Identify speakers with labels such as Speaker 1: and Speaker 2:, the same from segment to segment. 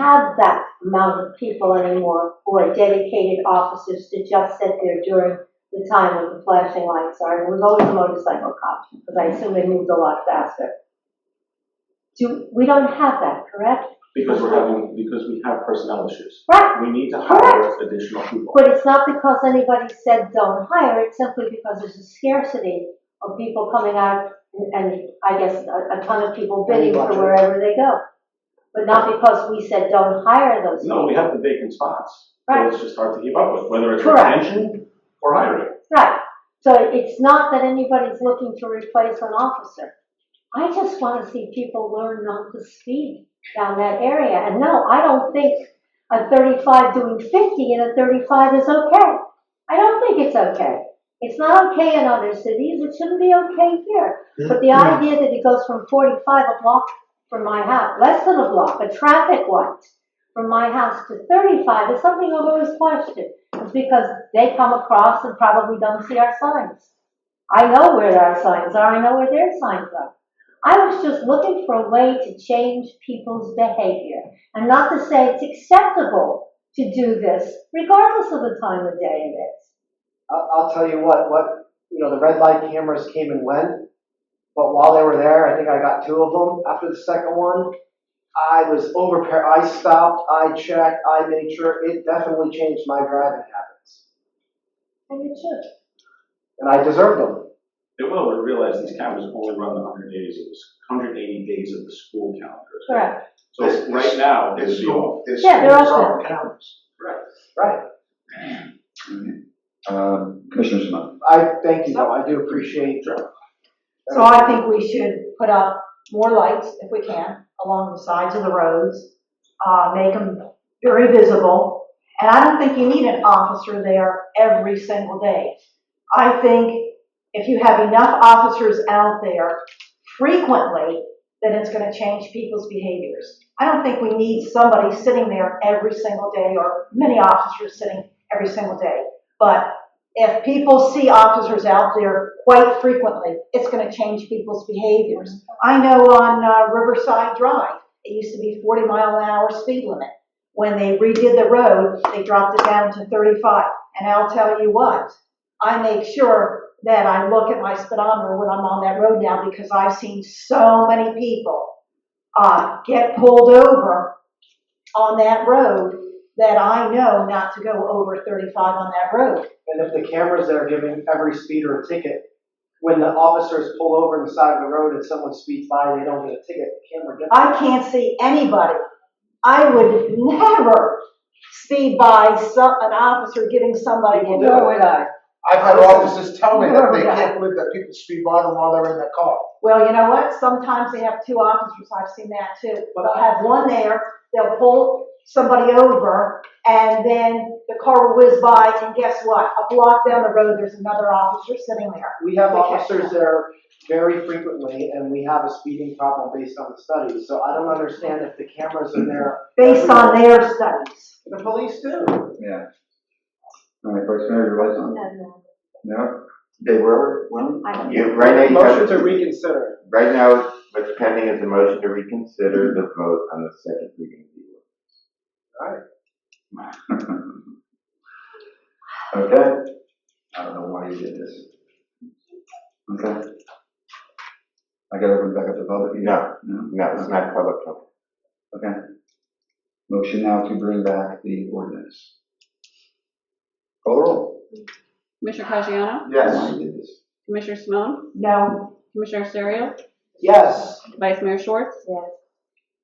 Speaker 1: have that amount of people anymore who are dedicated officers to just sit there during the time when the flashing lights are, and it was always a motorcycle cop, because I assume they moved a lot faster. Do, we don't have that, correct?
Speaker 2: Because we're having, because we have personnel issues.
Speaker 1: Right,
Speaker 2: We need to hire additional people.
Speaker 1: but it's not because anybody said don't hire, it's simply because there's a scarcity of people coming out, and- and I guess a, a ton of people bidding for
Speaker 3: Budget.
Speaker 1: wherever they go. But not because we said don't hire those people.
Speaker 2: No, we have the vacant spots, so
Speaker 1: Right.
Speaker 2: it's just hard to keep up with, whether it's
Speaker 1: Correct.
Speaker 2: retention or hiring.
Speaker 1: Right, so it's not that anybody's looking to replace an officer. I just wanna see people learn not to speed down that area, and no, I don't think a thirty-five doing fifty and a thirty-five is okay. I don't think it's okay. It's not okay in other cities, it shouldn't be okay here. But the idea that it goes from forty-five a block from my house, less than a block, a traffic light from my house to thirty-five is something I've always questioned. It's because they come across and probably don't see our signs. I know where our signs are, I know where their signs are. I was just looking for a way to change people's behavior and not to say it's acceptable to do this regardless of the time of day it is.
Speaker 3: I'll, I'll tell you what, what, you know, the red light cameras came and went, but while they were there, I think I got two of them. After the second one, I was over, I stopped, I checked, I made sure, it definitely changed my driving habits.
Speaker 1: And it should.
Speaker 3: And I deserved them.
Speaker 2: They will, but realize these cameras only run the hundred days of this, hundred eighty days of the school calendar.
Speaker 1: Correct.
Speaker 2: So right now, it would
Speaker 4: It's
Speaker 2: be off.
Speaker 4: so, it's
Speaker 1: Yeah, they're
Speaker 4: so
Speaker 1: all-
Speaker 4: countless.
Speaker 3: Right.
Speaker 5: Um, Commissioner Simon.
Speaker 3: I, thank you though, I do appreciate your
Speaker 6: So I think we should put up more lights if we can along the sides of the roads, uh, make them very visible. And I don't think you need an officer there every single day. I think if you have enough officers out there frequently, then it's gonna change people's behaviors. I don't think we need somebody sitting there every single day or many officers sitting every single day. But if people see officers out there quite frequently, it's gonna change people's behaviors. I know on uh, Riverside Drive, it used to be forty mile an hour speed limit. When they redid the road, they dropped it down to thirty-five. And I'll tell you what, I make sure that I look at my speedometer when I'm on that road now because I've seen so many people uh, get pulled over on that road that I know not to go over thirty-five on that road.
Speaker 3: And if the cameras there giving every speeder a ticket, when the officers pull over on the side of the road and someone speeds by and they don't get a ticket, the camera gets.
Speaker 6: I can't see anybody. I would never speed by some, an officer giving somebody a
Speaker 3: People do it.
Speaker 6: would I?
Speaker 4: I've had officers tell me that they
Speaker 6: Yeah.
Speaker 4: can't believe that people speed by them while they're in their car.
Speaker 6: Well, you know what? Sometimes they have two officers. I've seen that too.
Speaker 3: But
Speaker 6: They'll have one there, they'll pull somebody over, and then the car will whiz by, and guess what? A block down the road, there's another officer sitting there.
Speaker 3: We have
Speaker 6: Okay.
Speaker 3: officers there very frequently, and we have a speeding problem based on the studies, so I don't understand if the cameras are there.
Speaker 6: Based on their studies.
Speaker 3: The police do.
Speaker 5: Yeah. All right, Vice Mayor, your lights on.
Speaker 1: And, uh,
Speaker 5: No? They were, well.
Speaker 1: I-
Speaker 7: You, right now, you
Speaker 3: Motion to
Speaker 7: have,
Speaker 3: reconsider.
Speaker 7: right now, what's pending is a motion to reconsider the vote on the second reading. of the ordinance.
Speaker 5: Okay. I don't know why you did this. Okay. I gotta open back up the public.
Speaker 7: No.
Speaker 5: No,
Speaker 7: No, it's not public comment.
Speaker 5: okay. Motion now to bring back the ordinance. Call the roll.
Speaker 8: Commissioner Caggiano,
Speaker 5: Why you did this?
Speaker 8: Commissioner Simone,
Speaker 6: No,
Speaker 8: Commissioner Serio,
Speaker 3: Yes.
Speaker 8: Vice Mayor Schwartz,
Speaker 1: Yes.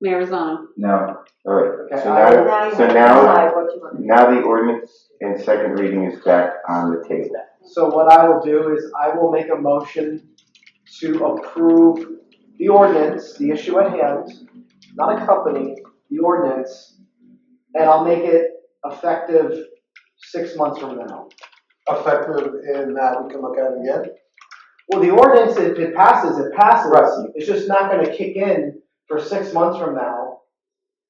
Speaker 8: Mayor Rosano.
Speaker 5: No,
Speaker 7: All right,
Speaker 3: Okay,
Speaker 7: so
Speaker 3: I-
Speaker 7: now, so now,
Speaker 1: Decide what you want.
Speaker 7: now the ordinance in second reading is back on the table.
Speaker 3: So what I will do is I will make a motion to approve the ordinance, the issue at hand, not accompanying the ordinance, and I'll make it effective six months from now.
Speaker 4: Effective in that we can look at it again.
Speaker 3: Well, the ordinance, if it passes, it passes.
Speaker 4: Right.
Speaker 3: It's just not gonna kick in for six months from now.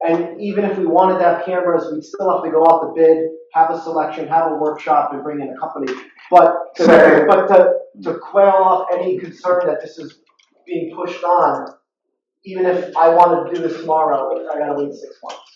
Speaker 3: And even if we wanted to have cameras, we'd still have to go out to bid, have a selection, have a workshop, and bring in a company. But, to-
Speaker 7: Second.
Speaker 3: but to, to quail off any concern that this is being pushed on, even if I wanted to do this tomorrow, I gotta wait six months.